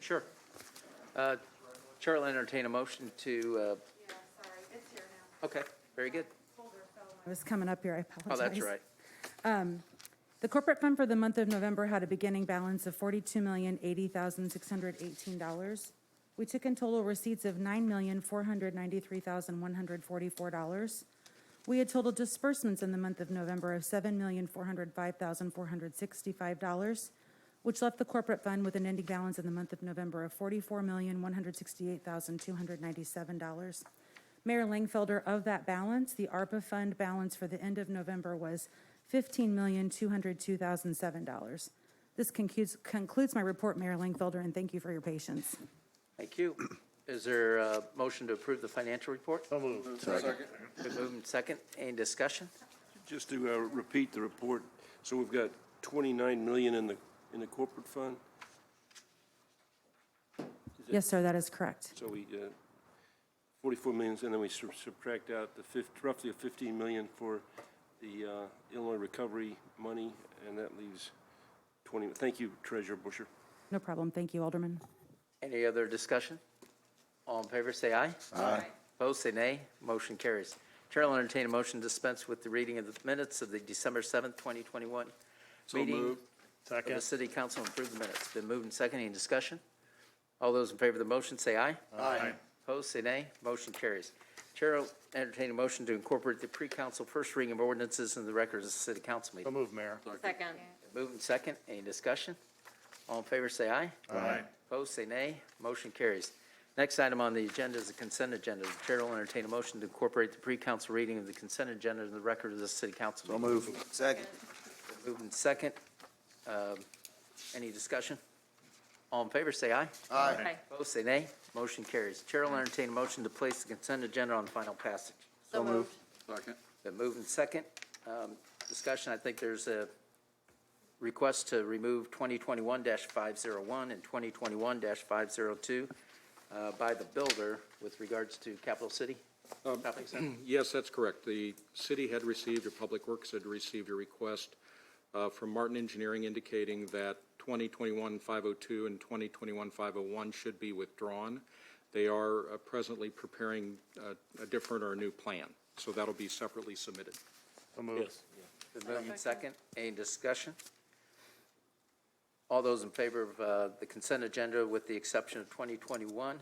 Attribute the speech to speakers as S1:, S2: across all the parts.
S1: Sure. Uh, Chair will entertain a motion to,
S2: Yeah, sorry, it's here now.
S1: uh, okay, very good.
S2: Folder fell
S3: I was coming up here, I apologize.
S1: Oh, that's right.
S3: The corporate fund for the month of November had a beginning balance of forty-two million, eighty thousand, six hundred eighteen dollars. We took in total receipts of nine million, four hundred ninety-three thousand, one hundred forty-four dollars. We had total disbursements in the month of November of seven million, four hundred five thousand, four hundred sixty-five dollars, which left the corporate fund with an ending balance in the month of November of forty-four million, one hundred sixty-eight thousand, two hundred ninety-seven dollars. Mayor Langfelder, of that balance, the ARPA fund balance for the end of November was $15,202,007. This concludes, concludes my report, Mayor Langfelder, and thank you for your patience.
S1: Thank you. Is there a motion to approve the financial report? So moved. Second. Been moved and second. Any discussion?
S4: Just to uh, repeat the report, so we've got 29 million in the, in the corporate fund,
S3: Yes, sir, that is correct.
S4: so we, uh, 44 million, and then we sub- subtract out the fif, roughly 15 million for the uh, Illinois recovery money, and that leaves 20, thank you, Treasurer Busher.
S3: No problem. Thank you, Alderman.
S1: Any other discussion? All in favor, say aye. Aye. Opposed, say nay. Motion carries. Chair will entertain a motion to dispense with the reading of the minutes of the December 7th, 2021 meeting of the City Council and approve the minutes. Been moved and second. Any discussion? All those in favor of the motion, say aye. Aye. Opposed, say nay. Motion carries. Chair will entertain a motion to incorporate the pre-council first reading of ordinances in the records of the City Council meeting.
S5: move, Mayor.
S6: Second.
S1: Moved and second. Any discussion? All in favor, say aye.
S5: Aye.
S1: Opposed, say nay. Motion carries. Next item on the agenda is the consent agenda. The chair will entertain a motion to incorporate the pre-council reading of the consent agenda in the record of the city council. meeting.
S5: move.
S7: Second.
S1: Moved and second. Um, Any discussion? All in favor, say aye.
S6: Aye.
S1: Opposed, say nay. Motion carries. Chair will entertain a motion to place the consent agenda on final passage.
S6: So moved.
S7: Second.
S1: Been moved and second. Um, Discussion, I think there's a request to remove 2021-501 and 2021-502 uh, by the builder with regards to Capital City. Shopping center.
S8: Yes, that's correct. The city had received, or Public Works had received a request uh, from Martin Engineering indicating that 2021-502 and 2021-501 should be withdrawn. They are uh, presently preparing uh, a different or a new plan, so that'll be separately submitted.
S5: So moved.
S1: Been moved and second. Any discussion? All those in favor of uh, the consent agenda with the exception of 2021-501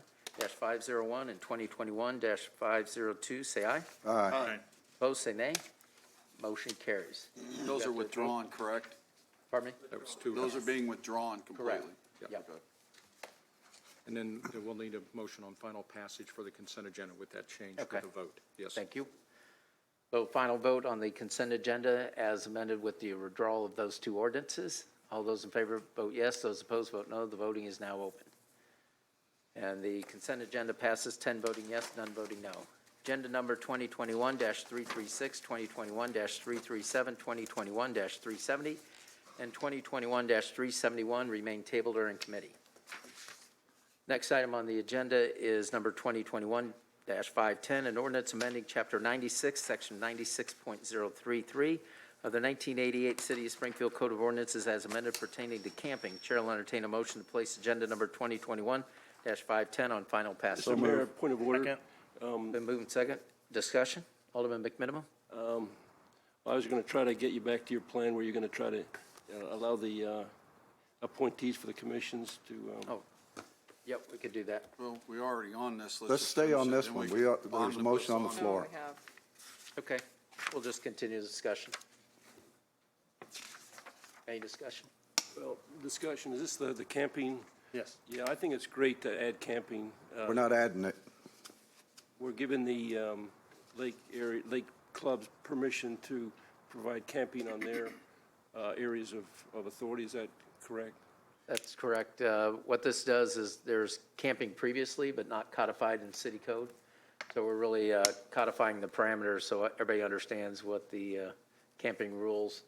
S1: and 2021-502, say aye.
S5: Aye.
S1: Opposed, say nay. Motion carries.
S7: Those are withdrawn, correct?
S1: Pardon me?
S8: That was two.
S7: Those are being withdrawn completely?
S1: Yeah.
S7: Okay.
S8: And then we'll need a motion on final passage for the consent agenda with that change
S1: Okay.
S8: with the vote. Yes.
S1: Thank you. So final vote on the consent agenda as amended with the withdrawal of those two ordinances. All those in favor vote yes, those opposed vote no. The voting is now open. And the consent agenda passes 10 voting yes, none voting no. Agenda number 2021-336, 2021-337, 2021-370, and 2021-371 remain tabled or in committee. Next item on the agenda is number 2021-510, an ordinance amending Chapter 96, Section 96.033 of the 1988 City of Springfield Code of Ordinances as amended pertaining to camping. Chair will entertain a motion to place agenda number 2021-510 on final passage.
S4: Mr. Mayor, point of order.
S1: Been moved and second. Discussion? Alderman McMiniman?
S4: I was going to try to get you back to your plan where you're going to try to uh, allow the uh, appointees for the commissions to, um,
S1: Oh, yep, we could do that.
S7: Well, we're already on this.
S9: Let's
S7: just
S9: stay
S7: finish
S9: on
S7: it,
S9: this
S7: then
S9: one.
S7: can
S9: We are-
S7: omnibus
S9: there's a motion on the
S6: No,
S9: floor.
S6: we have.
S1: Okay, we'll just continue the discussion. Any discussion?
S4: well, discussion, is this the, the camping?
S5: Yes.
S4: Yeah, I think it's great to add camping. Uh,
S9: We're not adding it.
S4: We're giving the um, lake area, lake clubs permission to provide camping on their uh, areas of, of authority, is that correct?
S1: That's correct. Uh, What this does is there's camping previously, but not codified in city code. So we're really uh, codifying the parameters so everybody understands what the uh, camping rules